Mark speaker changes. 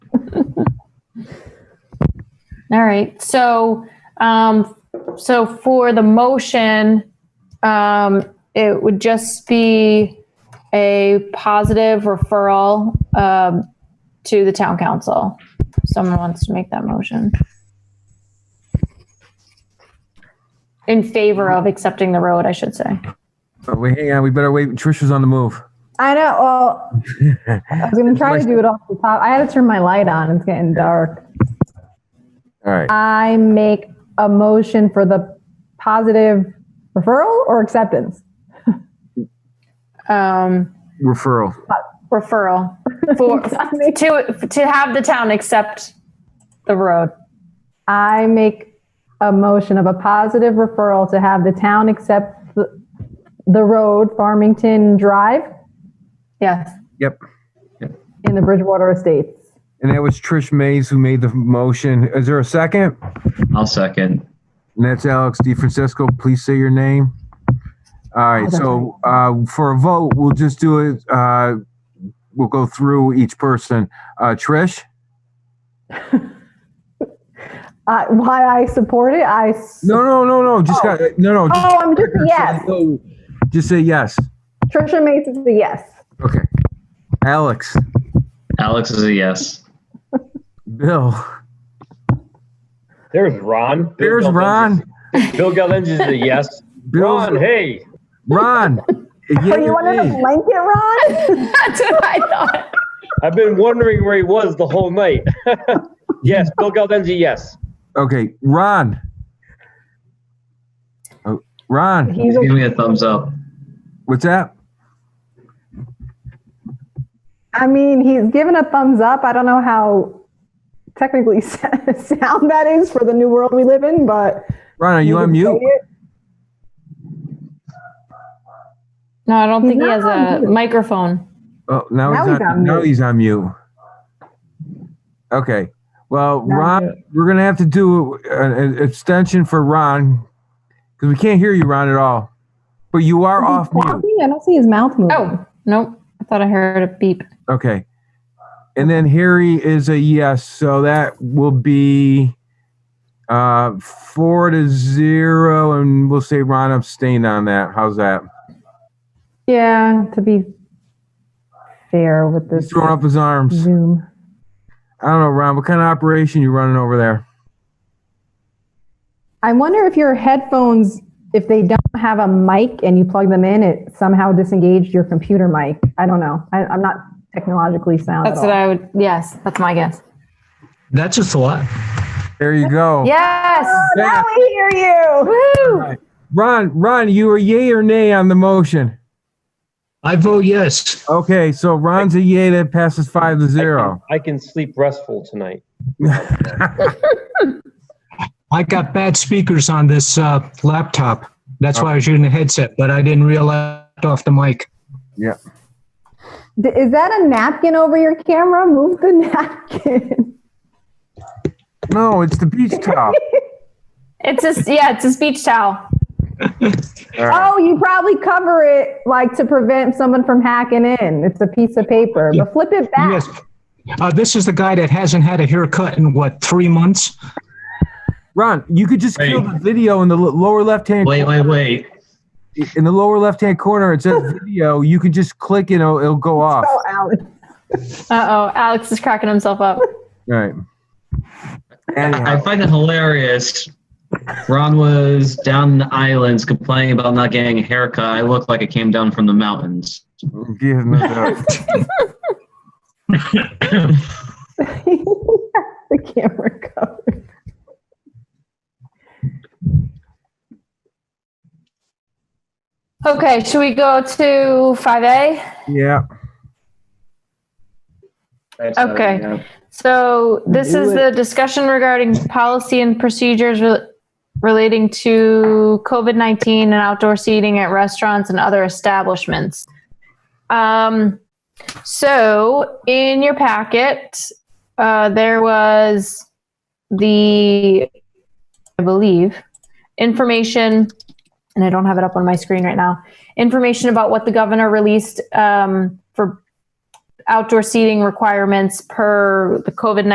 Speaker 1: All right, so, um, so for the motion, um, it would just be a positive referral, um, to the town council. Someone wants to make that motion. In favor of accepting the road, I should say.
Speaker 2: But we, hang on, we better wait. Tricia's on the move.
Speaker 3: I know. Well, I was gonna try to do it off the top. I had to turn my light on. It's getting dark.
Speaker 2: All right.
Speaker 3: I make a motion for the positive referral or acceptance.
Speaker 1: Um,
Speaker 2: Referral.
Speaker 1: referral for, to, to have the town accept the road.
Speaker 3: I make a motion of a positive referral to have the town accept the, the road Farmington Drive
Speaker 1: Yes.
Speaker 2: Yep.
Speaker 3: in the Bridgewater Estates.
Speaker 2: And that was Trish Mays who made the motion. Is there a second?
Speaker 4: I'll second.
Speaker 2: And that's Alex DeFrancisco. Please say your name. All right, so uh, for a vote, we'll just do it, uh, we'll go through each person. Uh, Trish?
Speaker 3: Uh, why I support it? I s-
Speaker 2: No, no, no, no, just, got- no, no. just-
Speaker 3: oh, I'm just yes.
Speaker 2: Just say yes.
Speaker 3: Trisha makes it a yes.
Speaker 2: Okay. Alex,
Speaker 4: Alex is a yes.
Speaker 2: Bill,
Speaker 5: There's Ron.
Speaker 2: there's
Speaker 5: Bill
Speaker 2: Ron.
Speaker 5: Geldenz is- Bill Geldenz is a yes.
Speaker 2: Bill's-
Speaker 5: Ron, hey,
Speaker 2: Ron.
Speaker 3: Oh, you wanted a blanket, Ron?
Speaker 1: That's what I thought.
Speaker 5: I've been wondering where he was the whole night. yes, Bill Geldenz, a yes.
Speaker 2: Okay, Ron. Oh, Ron,
Speaker 3: He's
Speaker 4: Give
Speaker 3: a,
Speaker 4: me a thumbs up.
Speaker 2: what's that?
Speaker 3: I mean, he's given a thumbs up. I don't know how technically sound that is for the new world we live in, but
Speaker 2: Ron, are you on mute?
Speaker 1: No, I don't
Speaker 3: He's
Speaker 1: think he
Speaker 3: not
Speaker 1: has a
Speaker 3: on mute.
Speaker 1: microphone.
Speaker 2: Oh, now, he's, on, now
Speaker 3: mute.
Speaker 2: he's on mute. Okay. Well,
Speaker 3: Now
Speaker 2: Ron,
Speaker 3: mute.
Speaker 2: we're gonna have to do an, an extension for Ron because we can't hear you, Ron, at all. But you are off mute.
Speaker 3: I don't see his mouth moving.
Speaker 1: Oh, nope. I thought I heard a beep.
Speaker 2: Okay. And then Harry is a yes, so that will be uh four to zero, and we'll say Ron abstained on that. How's that?
Speaker 3: Yeah, to be fair with
Speaker 2: He's
Speaker 3: this
Speaker 2: throwing up his arms.
Speaker 3: Zoom.
Speaker 2: I don't know, Ron. What kind of operation you running over there?
Speaker 3: I wonder if your headphones, if they don't have a mic and you plug them in, it somehow disengaged your computer mic. I don't know. I, I'm not technologically sound.
Speaker 1: That's
Speaker 3: at
Speaker 1: what
Speaker 3: all.
Speaker 1: I would, yes, that's my guess.
Speaker 6: That's just a lot.
Speaker 2: There you go.
Speaker 1: Yes.
Speaker 2: Yeah.
Speaker 3: Oh, we hear you.
Speaker 1: Woo.
Speaker 2: Ron, Ron, you are yay or nay on the motion?
Speaker 6: I vote Oh, yes.
Speaker 2: Okay, so Ron's a yay. That passes five to zero.
Speaker 5: I can sleep restful tonight.
Speaker 6: I got bad speakers on this uh, laptop. That's why I was using the headset, but I didn't realize I left off the mic.
Speaker 3: D- Is that a napkin over your camera? Move the napkin.
Speaker 2: No, it's the beach towel.
Speaker 1: It's a, yeah, it's a speech towel.
Speaker 3: Oh, you probably cover it like to prevent someone from hacking in. It's a piece of paper, but flip it back.
Speaker 6: Yes. Uh, this is the guy that hasn't had a haircut in what, three months?
Speaker 2: Ron, you could just kill the video in the l- lower left hand.
Speaker 4: Wait, wait, wait.
Speaker 2: In the lower left hand corner, it says video. You can just click and it'll, it'll go off.
Speaker 3: Oh, Alex.
Speaker 1: Uh-oh, Alex is cracking himself up.
Speaker 2: All right.
Speaker 4: I
Speaker 2: Anyhow,
Speaker 4: find it hilarious. Ron was down in the islands complaining about not getting a haircut. I looked like I came down from the mountains.
Speaker 2: give him a-
Speaker 3: the camera covered.
Speaker 1: Okay, should we go to five A?
Speaker 2: yeah.
Speaker 1: Okay. So this is the discussion regarding policy and procedures re- relating to COVID-19 and outdoor seating at restaurants and other establishments. Um, so in your packet, uh, there was the, I believe, information, and I don't have it up on my screen right now, information about what the governor released um, for outdoor seating requirements per the COVID